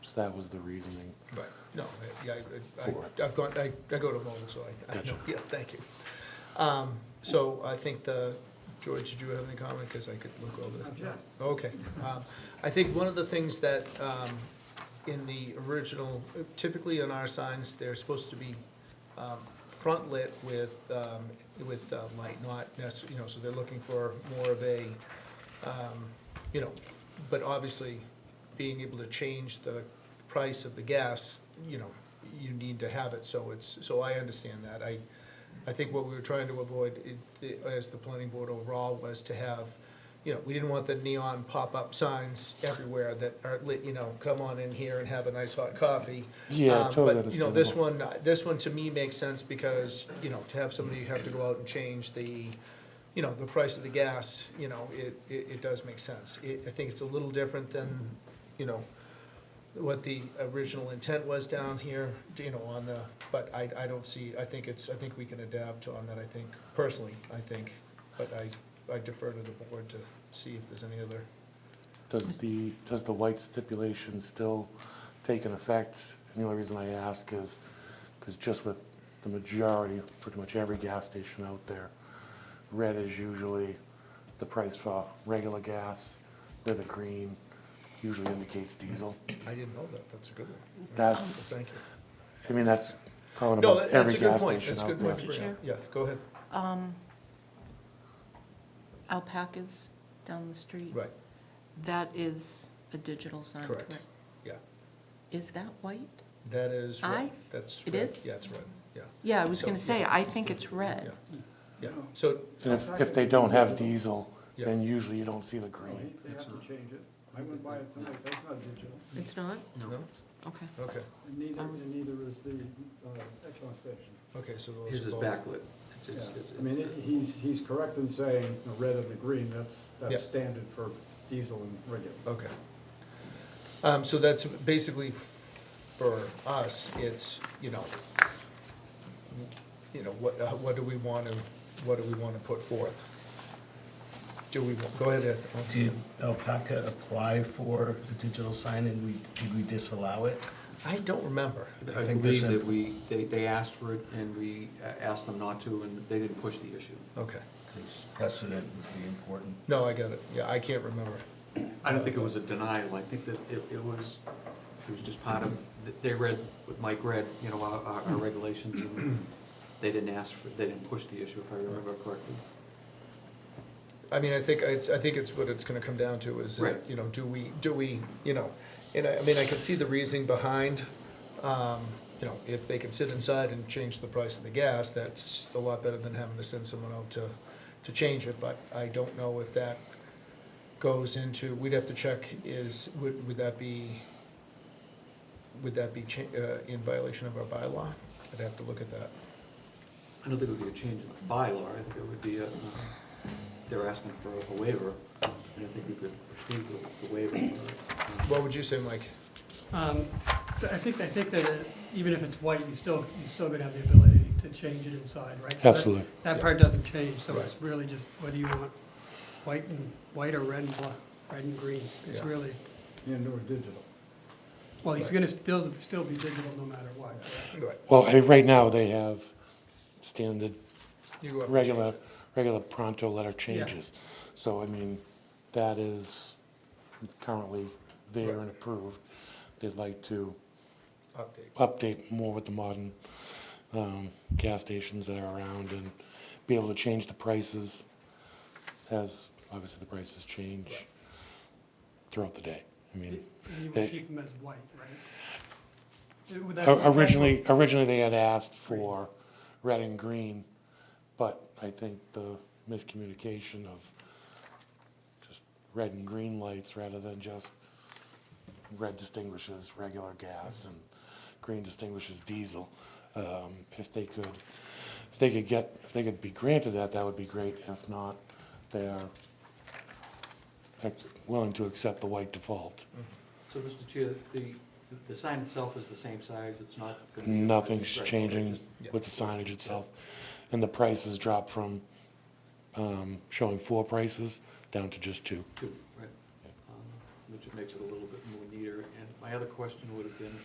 house. That was the reasoning. Right, no, I- yeah, I- For I, I've gone, I, I go to mobile, so I, I know, Gotcha. yeah, thank you. Um, so I think the, George, did you have any comment, because I could look over that? sure. Okay, um, I think one of the things that, um, in the original, typically on our signs, they're supposed to be, um, front lit with, um, with, uh, light, not necessarily, you know, so they're looking for more of a, um, you know, but obviously, being able to change the price of the gas, you know, you need to have it, so it's, so I understand that. I, I think what we were trying to avoid, i- as the planning board overall, was to have, you know, we didn't want the neon pop-up signs everywhere that are lit, you know, come on in here and have a nice hot coffee. Yeah, Um, totally But, you know, this understandable. one, uh, this one to me makes sense because, you know, to have somebody have to go out and change the, you know, the price of the gas, you know, it, it, it does make sense. It, I think it's a little different than, you know, what the original intent was down here, you know, on the, but I, I don't see, I think it's, I think we can adapt on that, I think, personally, I think. But I, I defer to the board to see if there's any other, Does the, does the white stipulation still take an effect? And the only reason I ask is, because just with the majority, pretty much every gas station out there, red is usually the price for regular gas, where the green usually indicates diesel. I didn't know that, that's a good one. That's, Thank you. I mean, that's common No, about that- every that's a good gas point, station that's a out good there. point. to bring up. Yeah, go ahead, Um, alpacas down the street. right, That is a digital sign, Correct. correct? yeah. Is that white? That is red, Aye. that's It red, is? Uh, yeah, it's red, yeah, Yeah, I was So, gonna say, yeah. I think it's red. yeah. So, And if, if they don't have diesel, Yeah. then usually you don't see the green. They have to change it. I went by it tonight, that's not digital. It's not? no, Okay. okay, And neither, I was- and neither is the uh, Exxon station. okay, so those are both. His is backlit. It's- Yeah, it's- it's- I mean, it- he's, he's correct in saying the red and the green, that's, Yeah. that's standard for diesel and regular. Okay. Um, so that's basically f- for us, it's, you know, you know, what, uh, what do we want to, what do we want to put forth? Do we, go ahead, Ed. Did Alpaca apply for the digital sign and we, did we disallow it? I don't remember. I think believe this- that we, they, they asked for it and we uh, asked them not to and they didn't push the issue. Okay. Because precedent would be important. No, I got it. Yeah, I can't remember. I don't think it was a denial. I think that it, it was, it was just part of, they read, what Mike read, you know, our, our- our regulations and they didn't ask for, they didn't push the issue if I remember correctly. I mean, I think, it's- I think it's what it's gonna come down to is, Right. you know, do we, do we, you know, and I, I mean, I can see the reasoning behind, um, you know, if they can sit inside and change the price of the gas, that's a lot better than having to send someone out to, to change it, but I don't know if that goes into, we'd have to check is, would, would that be, would that be cha- uh, in violation of our bylaw? I'd have to look at that. I don't think it would be a change in the bylaw. I think it would be a, uh, they were asking for a waiver and I think we could proceed with the waiver. Um, What would you say, Mike? Um, I think, I think that uh, even if it's white, you still, you still gonna have the ability to change it inside, right? So that- Absolutely. That part doesn't change, so Right. it's really just whether you want white and, white or red and black, red and green. It's Yeah. really, And or digital. well, it's Right. gonna still, still be digital no matter what. Right. Well, I- right now, they have standard, You go up and regular, change it. regular pronto letter changes. So, I mean, that is currently there and approved. They'd like to Update. update more with the modern um, gas stations that are around and be able to change the prices as, obviously, the prices change throughout the day. I mean, And you They- would keep them as white, right? It- would that- O- Originally, originally they had asked for red and green, but I think the miscommunication of just red and green lights rather than just red distinguishes regular gas and green distinguishes diesel. Um, If they could, if they could get, if they could be granted that, that would be great. If not, they are ac- willing to accept the white default. So, Mr. Chair, the, the sign itself is the same size, it's not gonna be. Nothing's Right, changing just- with the signage itself. And the prices dropped from um, showing four prices down to just two. Two, right. Um, which makes it a little bit more neater. And my other question would have been,